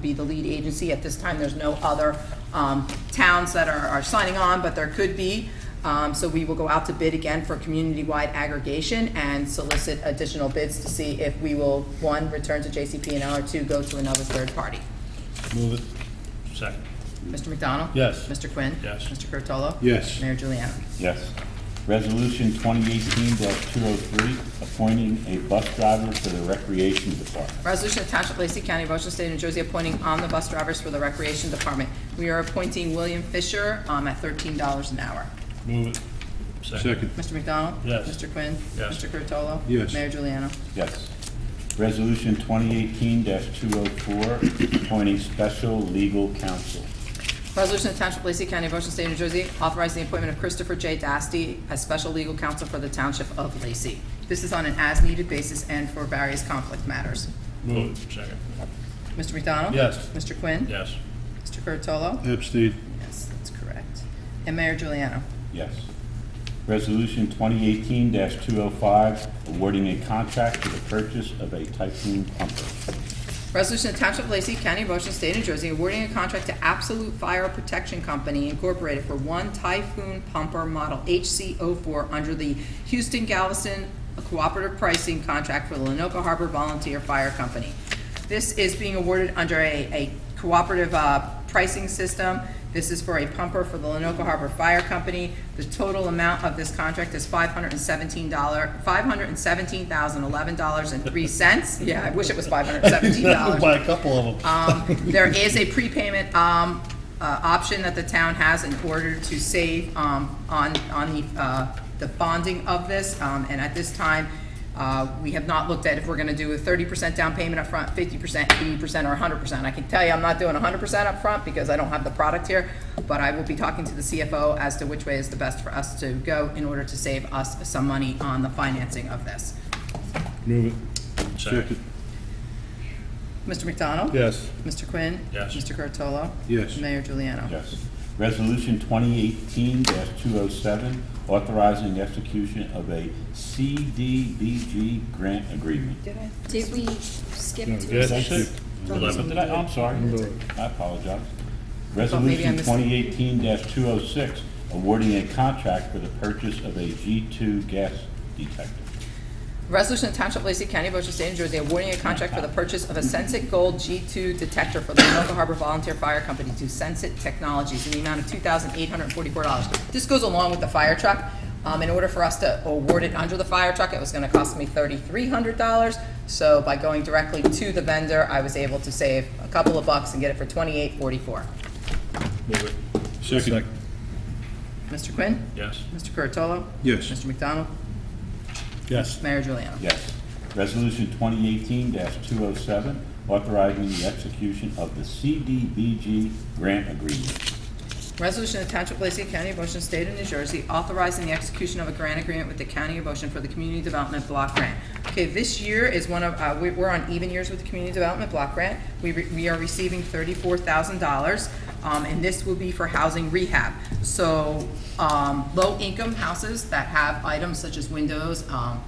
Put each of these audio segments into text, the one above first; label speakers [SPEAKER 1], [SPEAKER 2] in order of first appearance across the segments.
[SPEAKER 1] be the lead agency. At this time, there's no other um, towns that are are signing on, but there could be. Um, So we will go out to bid again for community-wide aggregation and solicit additional bids to see if we will, one, return to JCP&L, or two, go to another third party.
[SPEAKER 2] Move it. Second.
[SPEAKER 1] Mr. McDonald?
[SPEAKER 2] Yes.
[SPEAKER 1] Mr. Quinn?
[SPEAKER 2] Yes.
[SPEAKER 1] Mr. Curatolo?
[SPEAKER 2] Yes.
[SPEAKER 1] Mayor Juliana?
[SPEAKER 3] Yes. Resolution 2018-203, appointing a bus driver for the Recreation Department.
[SPEAKER 1] Resolution of Township of Lacey County, Ocean State, New Jersey, appointing omnibus drivers for the Recreation Department. We are appointing William Fisher um, at thirteen dollars an hour.
[SPEAKER 2] Move it. Second.
[SPEAKER 1] Mr. McDonald?
[SPEAKER 2] Yes.
[SPEAKER 1] Mr. Quinn?
[SPEAKER 2] Yes.
[SPEAKER 1] Mr. Curatolo?
[SPEAKER 2] Yes.
[SPEAKER 1] Mayor Juliana?
[SPEAKER 3] Yes. Resolution 2018-204, appointing special legal counsel.
[SPEAKER 1] Resolution of Township of Lacey County, Ocean State, New Jersey, authorizing the appointment of Christopher J. Dasty as special legal counsel for the Township of Lacey. This is on an as-needed basis and for various conflict matters.
[SPEAKER 2] Move it. Second.
[SPEAKER 1] Mr. McDonald?
[SPEAKER 2] Yes.
[SPEAKER 1] Mr. Quinn?
[SPEAKER 2] Yes.
[SPEAKER 1] Mr. Curatolo?
[SPEAKER 2] Epstein.
[SPEAKER 1] Yes, that's correct. And Mayor Juliana?
[SPEAKER 3] Yes. Resolution 2018-205, awarding a contract for the purchase of a Typhoon pumper.
[SPEAKER 1] Resolution to Township of Lacey County, Motion State New Jersey, awarding a contract to Absolute Fire Protection Company Incorporated for one Typhoon Pumper Model HC04 under the Houston Galveston Cooperative Pricing Contract for the Lenoka Harbor Volunteer Fire Company. This is being awarded under a, a cooperative, uh, pricing system. This is for a pumper for the Lenoka Harbor Fire Company. The total amount of this contract is five hundred and seventeen dollar, five hundred and seventeen thousand, eleven dollars and three cents. Yeah, I wish it was five hundred and seventeen dollars.
[SPEAKER 2] Buy a couple of them.
[SPEAKER 1] Um, There is a prepayment um, uh, option that the town has in order to save um, on, on the, uh, the bonding of this. Um, And at this time, uh, we have not looked at if we're going to do a thirty percent down payment upfront, fifty percent, eighty percent, or hundred percent. I can tell you, I'm not doing hundred percent upfront because I don't have the product here, but I will be talking to the CFO as to which way is the best for us to go in order to save us some money on the financing of this.
[SPEAKER 2] Move it. Second.
[SPEAKER 1] Mr. McDonald?
[SPEAKER 2] Yes.
[SPEAKER 1] Mr. Quinn?
[SPEAKER 2] Yes.
[SPEAKER 1] Mr. Curatolo?
[SPEAKER 2] Yes.
[SPEAKER 1] Mayor Juliano?
[SPEAKER 3] Yes. Resolution 2018-207, authorizing execution of a CDBG grant agreement.
[SPEAKER 1] Did I
[SPEAKER 4] Did we skip to
[SPEAKER 2] Yeah,
[SPEAKER 4] a
[SPEAKER 2] that's
[SPEAKER 4] six?
[SPEAKER 3] Eleven. Did I, I'm sorry. I apologize. Resolution
[SPEAKER 1] missed it.
[SPEAKER 3] 2018-206, awarding a contract for the purchase of a G2 gas detector.
[SPEAKER 1] Resolution of Township of Lacey County, Ocean State, New Jersey, awarding a contract for the purchase of a Sensit Gold G2 detector for the Lenoka Harbor Volunteer Fire Company to Sensit Technologies in the amount of $2,844. This goes along with the fire truck. Um, In order for us to award it under the fire truck, it was going to cost me $3,300. So by going directly to the vendor, I was able to save a couple of bucks and get it for $2,844.
[SPEAKER 2] Move it. Second.
[SPEAKER 1] Mr. Quinn?
[SPEAKER 2] Yes.
[SPEAKER 1] Mr. Curatolo?
[SPEAKER 2] Yes.
[SPEAKER 1] Mr. McDonald?
[SPEAKER 2] Yes.
[SPEAKER 1] Mayor Juliana?
[SPEAKER 3] Yes. Resolution 2018-207, authorizing the execution of the CDBG grant agreement.
[SPEAKER 1] Resolution of Township of Lacey County, Ocean State of New Jersey, authorizing the execution of a grant agreement with the County of Ocean for the Community Development Block Grant. Okay, this year is one of, uh, we- we're on even years with the Community Development Block Grant. We, re- we are receiving thirty-four thousand dollars, um, and this will be for housing rehab. So, um, low-income houses that have items such as windows, um,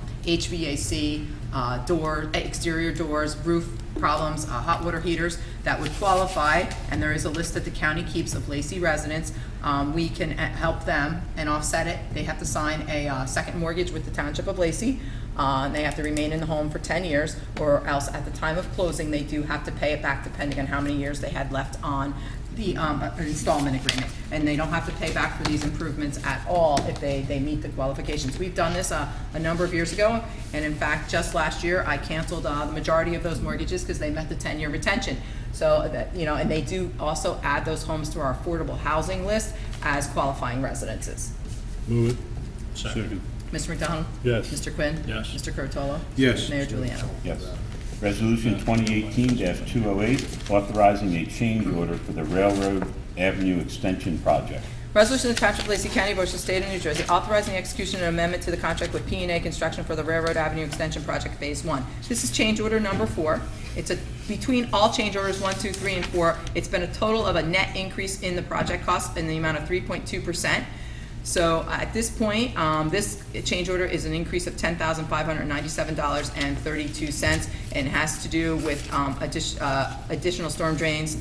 [SPEAKER 1] HVAC, uh, door, exterior doors, roof problems, uh, hot water heaters that would qualify, and there is a list that the county keeps of Lacey residents. Um, We can uh, help them and offset it. They have to sign a uh, second mortgage with the Township of Lacey, uh, and they have to remain in the home for 10 years, or else at the time of closing, they do have to pay it back depending on how many years they had left on the um, uh, installment agreement. And they don't have to pay back for these improvements at all if they, they meet the qualifications. We've done this uh, a number of years ago, and in fact, just last year, I canceled uh, the majority of those mortgages because they met the 10-year retention. So, that you know, and they do also add those homes to our affordable housing list as qualifying residences.
[SPEAKER 2] Move it. Second.
[SPEAKER 1] Mr. McDonald?
[SPEAKER 2] Yes.
[SPEAKER 1] Mr. Quinn?
[SPEAKER 2] Yes.
[SPEAKER 1] Mr. Curatolo?
[SPEAKER 2] Yes.
[SPEAKER 1] Mayor Juliana?
[SPEAKER 3] Yes. Resolution 2018-208, authorizing a change order for the Railroad Avenue Extension Project.
[SPEAKER 1] Resolution of Township of Lacey County, Ocean State of New Jersey, authorizing the execution of an amendment to the contract with p and A Construction for the Railroad Avenue Extension Project Phase One. This is change order number four. It's a, between all change orders one, two, three, and four, it's been a total of a net increase in the project cost in the amount of three point two percent. So at this point, um, this change order is an increase of ten thousand five hundred ninety-seven dollars and thirty-two cents, and has to do with um, addition- uh, additional storm drains